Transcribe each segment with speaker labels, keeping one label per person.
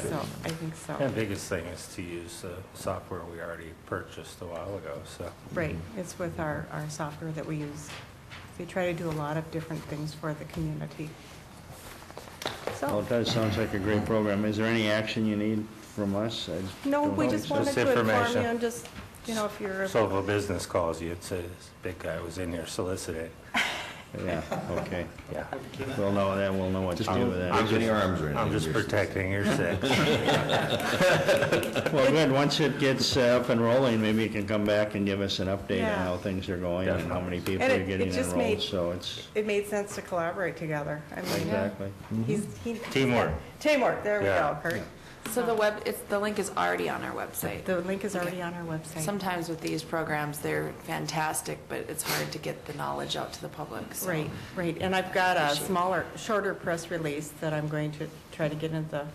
Speaker 1: so, I think so.
Speaker 2: And biggest thing is to use the software we already purchased a while ago, so.
Speaker 1: Right, it's with our, our software that we use. They try to do a lot of different things for the community.
Speaker 3: Well,
Speaker 1: So,
Speaker 3: it does, sounds like a great program. Is there any action you need from us? I
Speaker 1: no,
Speaker 3: don't
Speaker 1: we
Speaker 3: know.
Speaker 1: just
Speaker 2: want-
Speaker 1: wanted
Speaker 2: just
Speaker 1: to inform you
Speaker 2: information.
Speaker 1: and just, you know, if you're,
Speaker 2: So if a business calls you and says, big guy was in here soliciting,
Speaker 3: Yeah, okay.
Speaker 2: yeah.
Speaker 3: We'll know that, we'll know what to do with
Speaker 4: I'm
Speaker 3: that.
Speaker 4: getting arms right now.
Speaker 2: I'm just protecting your six.
Speaker 3: Well, good, once it gets uh, up and rolling, maybe you can come back and give us an update on
Speaker 1: Yeah.
Speaker 3: how things are going and how many people
Speaker 1: And
Speaker 3: are
Speaker 1: it- it
Speaker 3: getting
Speaker 1: just made-
Speaker 3: enrolled, so it's,
Speaker 1: it made sense to collaborate together. I mean,
Speaker 3: exactly.
Speaker 1: he's, he.
Speaker 2: Teamwork.
Speaker 1: Teamwork, there we
Speaker 2: Mm-hmm.
Speaker 1: go,
Speaker 2: Yeah.
Speaker 1: Kurt.
Speaker 5: So the web, it's, the link is already on our website.
Speaker 1: The link is already on our website.
Speaker 5: Sometimes with these programs, they're fantastic, but it's hard to get the knowledge out to the public, so.
Speaker 1: Right, right, and I've got a
Speaker 5: Appreciate it.
Speaker 1: smaller, shorter press release that I'm going to try to get into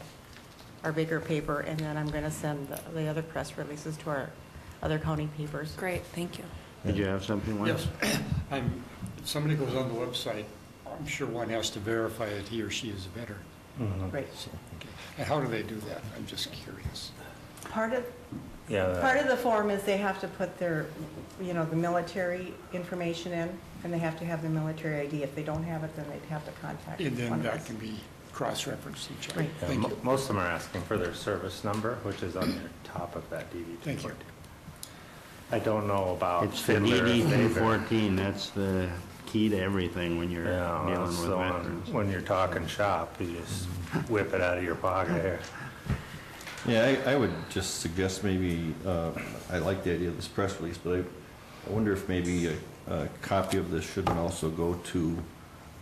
Speaker 1: our bigger paper, and then I'm gonna send the- the other press releases to our other county papers.
Speaker 5: Great, thank you.
Speaker 3: Did you have something, Lance?
Speaker 6: Yes, I'm, Um, if somebody goes on the website, I'm sure one has to verify that he or she is a veteran.
Speaker 4: Uh-huh.
Speaker 1: Right.
Speaker 6: Okay. And how do they do that? I'm just curious.
Speaker 1: Part of, part
Speaker 4: uh,
Speaker 2: Yeah,
Speaker 1: of the form is they have to put their, you know, the military information in, and they have to have the military ID. If they don't have it, then they'd have to contact
Speaker 6: And
Speaker 1: one
Speaker 6: then
Speaker 1: of
Speaker 6: that
Speaker 1: us.
Speaker 6: can be cross-referenced to each other.
Speaker 1: Right.
Speaker 2: Yeah,
Speaker 6: Thank
Speaker 2: mo-
Speaker 6: you.
Speaker 2: most of them are asking for their service number, which is on the top of that DD two
Speaker 6: Thank you.
Speaker 2: fourteen. I don't know about
Speaker 3: It's the
Speaker 2: Fiddler.
Speaker 3: DD
Speaker 2: if
Speaker 3: two
Speaker 2: they've-
Speaker 3: fourteen, that's the key to everything when you're
Speaker 2: Yeah,
Speaker 3: dealing
Speaker 2: that's
Speaker 3: with
Speaker 2: the one,
Speaker 3: veterans.
Speaker 2: when you're talking shop, you just whip it out of your pocket here.
Speaker 4: Yeah, I, I would just suggest maybe, uh, I like the idea of this press release, but I, I wonder if maybe a, a copy of this shouldn't also go to,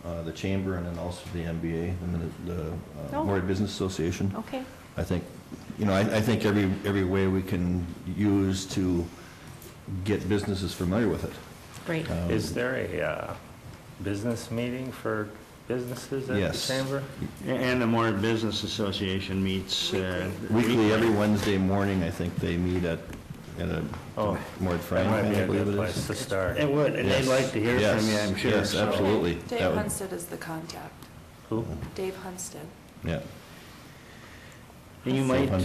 Speaker 4: uh, the chamber and then also the MBA, the, Min- the, uh,
Speaker 1: Oh.
Speaker 4: Morehead Business Association.
Speaker 5: Oh.
Speaker 1: Okay,
Speaker 4: I think, you know, I, I think every, every way we can use to get businesses familiar with it.
Speaker 1: great.
Speaker 2: Is there a uh, business meeting for businesses at the
Speaker 4: Yes.
Speaker 2: chamber?
Speaker 3: A- And the more Business Association meets, uh,
Speaker 4: Weekly, every Wednesday morning, I think they meet at, at a,
Speaker 2: Oh,
Speaker 4: Morehead
Speaker 2: That
Speaker 4: Frank,
Speaker 2: might be
Speaker 4: I
Speaker 2: a
Speaker 4: believe
Speaker 2: good
Speaker 4: it
Speaker 2: place
Speaker 4: is.
Speaker 2: to start.
Speaker 3: it would, and they'd
Speaker 4: Yes.
Speaker 3: like to hear from you,
Speaker 4: Yes.
Speaker 3: I'm sure.
Speaker 4: Yes,
Speaker 3: so-
Speaker 4: absolutely. That
Speaker 5: Dave
Speaker 4: would-
Speaker 5: Hunstead is the contact.
Speaker 2: Who?
Speaker 5: Dave Hunstead.
Speaker 4: Yeah,
Speaker 3: You might, uh,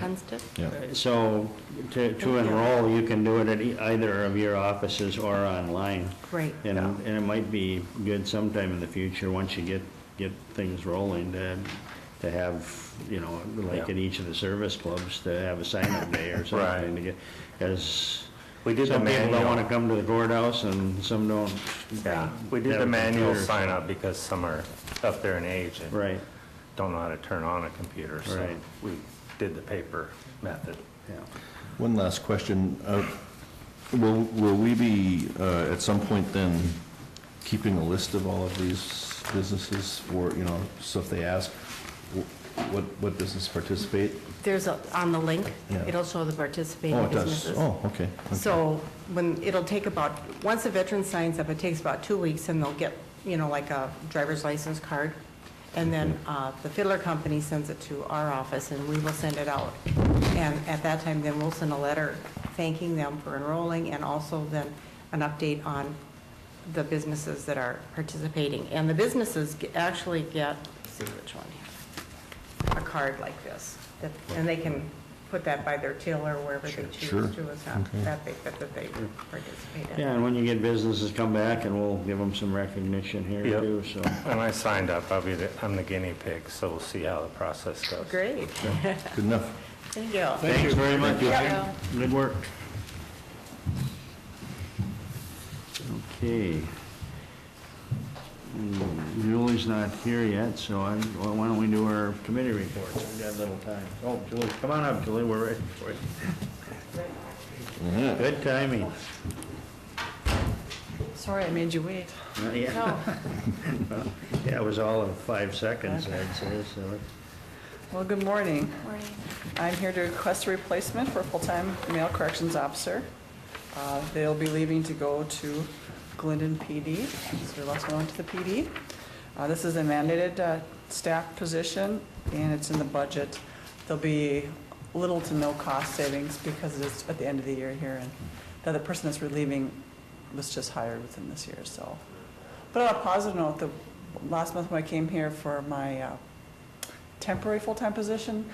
Speaker 1: Hunstead?
Speaker 4: yeah.
Speaker 3: so to to enroll, you can do it at e- either of your offices or online.
Speaker 1: Great.
Speaker 3: And and it might be good sometime in the future, once you get, get things rolling, to, to have, you know, like
Speaker 2: Yeah.
Speaker 3: in each of the service clubs, to have a sign-up day or something.
Speaker 2: Right.
Speaker 3: to get Because
Speaker 2: We did the
Speaker 3: some people don't
Speaker 2: manual.
Speaker 3: want to come to the courthouse and some don't.
Speaker 2: Yeah, we did
Speaker 3: have
Speaker 2: the
Speaker 3: a
Speaker 2: manual
Speaker 3: computer.
Speaker 2: sign up because some are up there in age and
Speaker 3: Right,
Speaker 2: don't know how to turn on a computer, so
Speaker 3: Right.
Speaker 2: we did the paper method.
Speaker 3: yeah.
Speaker 4: One last question. Uh, Will, will we be, uh, at some point then, keeping a list of all of these businesses for, you know, so if they ask wh- what, what business participate?
Speaker 1: There's, a- on the link,
Speaker 4: Yeah.
Speaker 1: it'll show the participating
Speaker 4: Oh, it does.
Speaker 1: businesses.
Speaker 4: Oh, okay.
Speaker 1: So when, it'll take about, once a veteran signs up, it takes about two weeks, and they'll get, you know, like a driver's license card. And then uh, the Fiddler Company sends it to our office, and we will send it out. And at that time, then we'll send a letter thanking them for enrolling, and also then an update on the businesses that are participating. And the businesses ge- actually get, let's see which one, here, a card like this, that- and they can put that by their till or wherever they
Speaker 4: Sure.
Speaker 1: choose to, it's not that big, but that they participate in.
Speaker 3: Yeah, and when you get businesses, come back and we'll give them some recognition here
Speaker 2: Yep.
Speaker 3: too, so.
Speaker 2: And I signed up, I'll be, the I'm the guinea pig, so we'll see how the process goes.
Speaker 1: Great,
Speaker 4: Good enough.
Speaker 1: thank you.
Speaker 3: Thanks very much.
Speaker 5: Yeah.
Speaker 3: Good work. Okay. Mm, Julie's not here yet, so I, well, why don't we do our committee reports? We've got a little time. Oh, Julie, come on up, Julie, we're ready for you. Good timing.
Speaker 7: Sorry, I made you wait.
Speaker 3: Uh, Yeah,
Speaker 7: No.
Speaker 3: yeah, it was all in five seconds, I'd say, so.
Speaker 7: Well, good morning.
Speaker 5: Morning.
Speaker 7: I'm here to request a replacement for a full-time male corrections officer. Uh, They'll be leaving to go to Glendon PD, so they're less known to the PD. Uh, This is a mandated uh, staff position, and it's in the budget. There'll be little to no cost savings because it's at the end of the year here, and the other person that's relieving was just hired within this year, so. But on a positive note, the, last month when I came here for my uh, temporary full-time position,